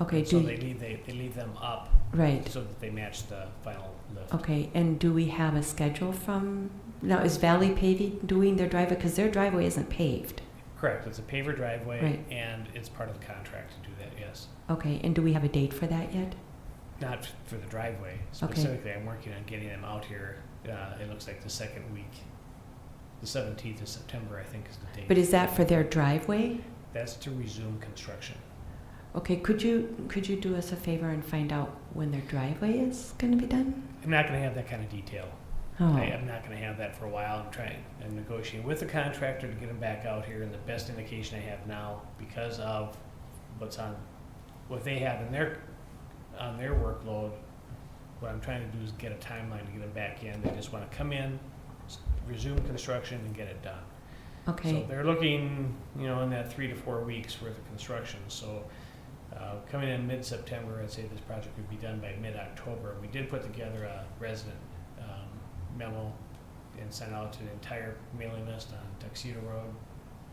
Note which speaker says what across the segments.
Speaker 1: Okay,
Speaker 2: So
Speaker 1: do,
Speaker 2: they leave, they, they leave them up
Speaker 1: right,
Speaker 2: so that they match the final lift.
Speaker 1: okay, and do we have a schedule from, now, is Valley paving, doing their driveway, because their driveway isn't paved,
Speaker 2: Correct, it's a paver driveway
Speaker 1: Right.
Speaker 2: and it's part of the contract to do that, yes.
Speaker 1: okay, and do we have a date for that yet?
Speaker 2: Not f- for the driveway specifically, I'm working on getting them out here, uh, it looks like the second week. The seventeenth of September, I think, is the date.
Speaker 1: But is that for their driveway?
Speaker 2: That's to resume construction.
Speaker 1: Okay, could you, could you do us a favor and find out when their driveway is gonna be done?
Speaker 2: I'm not gonna have that kind of detail.
Speaker 1: Oh,
Speaker 2: I uh, am not gonna have that for a while. I'm trying, I'm negotiating with the contractor to get him back out here, and the best indication I have now, because of what's on, what they have in their, on their workload, what I'm trying to do is get a timeline to get them back in. They just wanna come in, s- resume construction and get it done. So
Speaker 1: okay,
Speaker 2: they're looking, you know, in that three to four weeks worth of construction, so, uh, coming in mid-September, I'd say this project would be done by mid-October. We did put together a resident, um, memo and sent out to the entire mailing list on Tuxedo Road,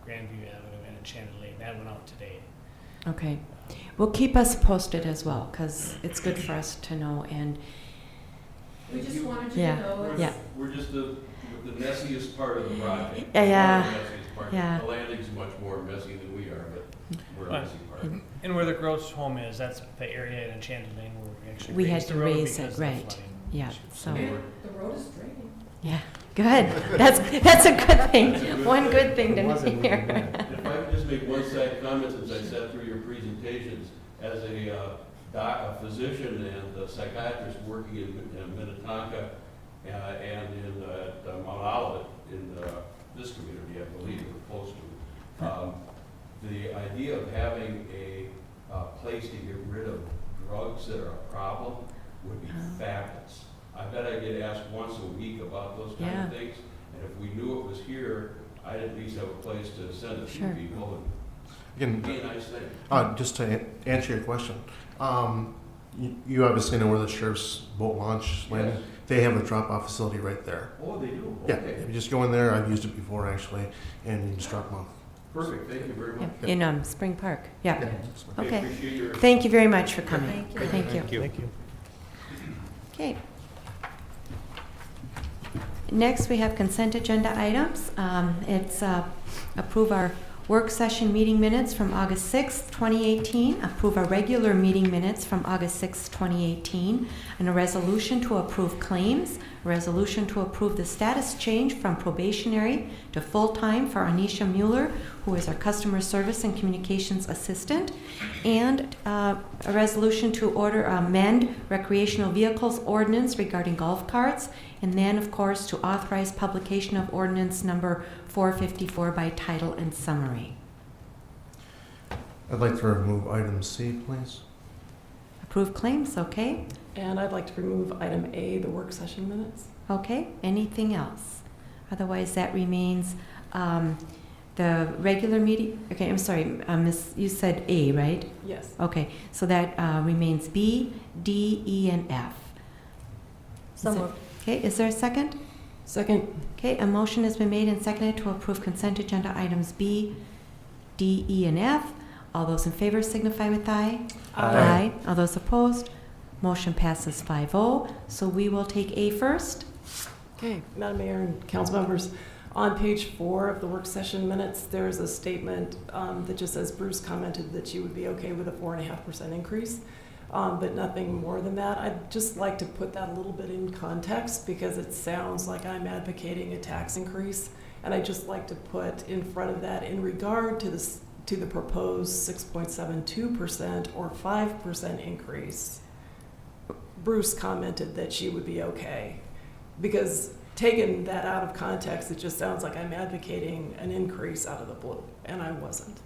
Speaker 2: Grandview Avenue, and Enchanted Lane. That went out today.
Speaker 1: okay. Well, keep us posted as well, because it's good for us to know, and,
Speaker 3: We just wanted you
Speaker 1: Yeah,
Speaker 3: to know.
Speaker 1: yeah.
Speaker 4: We're just the, the messiest part of the project.
Speaker 1: Yeah, yeah,
Speaker 4: We're the messiest part.
Speaker 1: yeah.
Speaker 4: The landing's much more messy than we are, but we're a messy part.
Speaker 2: And where the Gross home is, that's the area in Enchanted Lane where we
Speaker 1: We
Speaker 2: actually
Speaker 1: had
Speaker 2: raised the
Speaker 1: to
Speaker 2: road
Speaker 1: raise
Speaker 2: because
Speaker 1: it,
Speaker 2: of the flooding.
Speaker 1: right. yeah, so,
Speaker 3: And the road is draining.
Speaker 1: yeah, good. That's, that's a good
Speaker 4: That's a
Speaker 1: thing,
Speaker 4: good
Speaker 1: one
Speaker 4: thing.
Speaker 1: good thing to hear.
Speaker 4: If I could just make one side comment, since I sat through your presentations, as a uh, doc, a physician and a psychiatrist working in in Minnetonka uh, and in uh, at Mount Olivet, in uh, this community, I believe, or close to, um, the idea of having a uh, place to get rid of drugs that are a problem would be
Speaker 1: Oh.
Speaker 4: fabulous. I bet I get asked once a week about those kind
Speaker 1: Yeah.
Speaker 4: of things, and if we knew it was here, I'd at least have a place to send a few
Speaker 1: Sure.
Speaker 4: people and
Speaker 5: Again,
Speaker 4: be a nice thing.
Speaker 5: uh, just to an- answer your question, um, you, you obviously know where the sheriff's boat launch landing.
Speaker 4: Yes.
Speaker 5: They have a drop-off facility right there.
Speaker 4: Oh, they do?
Speaker 5: Yeah,
Speaker 4: Okay.
Speaker 5: you just go in there. I've used it before actually, and you just drop them off.
Speaker 4: Perfect, thank you very
Speaker 1: Yeah,
Speaker 4: much.
Speaker 1: In um, Spring Park, yeah.
Speaker 5: Yeah, so-
Speaker 4: I
Speaker 1: Okay.
Speaker 4: Appreciate your.
Speaker 1: Thank you very much for coming.
Speaker 3: Thank you.
Speaker 1: Thank you.
Speaker 2: Thank you.
Speaker 1: Okay. Next, we have consent agenda items. Um, It's uh, approve our work session meeting minutes from August 6th, 2018, approve our regular meeting minutes from August 6th, 2018, and a resolution to approve claims, resolution to approve the status change from probationary to full-time for Anisha Mueller, who is our customer service and communications assistant, and uh, a resolution to order amend recreational vehicles ordinance regarding golf carts, and then, of course, to authorize publication of ordinance number 454 by title and summary.
Speaker 5: I'd like to remove item C, please.
Speaker 1: Approve claims, okay?
Speaker 6: And I'd like to remove item A, the work session minutes.
Speaker 1: Okay, anything else? Otherwise, that remains um, the regular meeting, okay, I'm sorry, uh, Miss, you said A, right?
Speaker 6: Yes.
Speaker 1: Okay, so that uh, remains B, D, E, and F. So moved. Okay, is there a second?
Speaker 6: Second,
Speaker 1: Okay, a motion has been made and seconded to approve consent agenda items B, D, E, and F. All those in favor signify with aye.
Speaker 5: Aye.
Speaker 1: All those opposed, motion passes 5-0. So we will take A first.
Speaker 6: okay, Madam Mayor and council members, on page four of the work session minutes, there's a statement um, that just says Bruce commented that she would be okay with a four and a half percent increase, um, but nothing more than that. I'd just like to put that a little bit in context because it sounds like I'm advocating a tax increase. And I'd just like to put in front of that in regard to this, to the proposed six point seven two percent or five percent increase. Bruce commented that she would be okay. Because taking that out of context, it just sounds like I'm advocating an increase out of the blue, and I wasn't.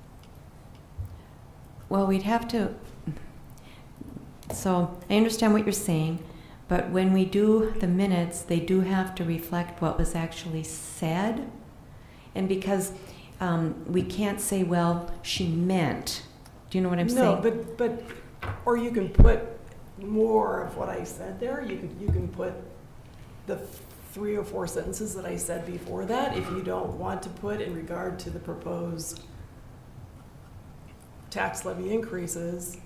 Speaker 1: Well, we'd have to, so I understand what you're saying, but when we do the minutes, they do have to reflect what was actually said. And because um, we can't say, well, she meant, do you know what I'm saying?
Speaker 6: No, but, but, or you can put more of what I said there, you can, you can put the three or four sentences that I said before that, if you don't want to put in regard to the proposed tax levy increases,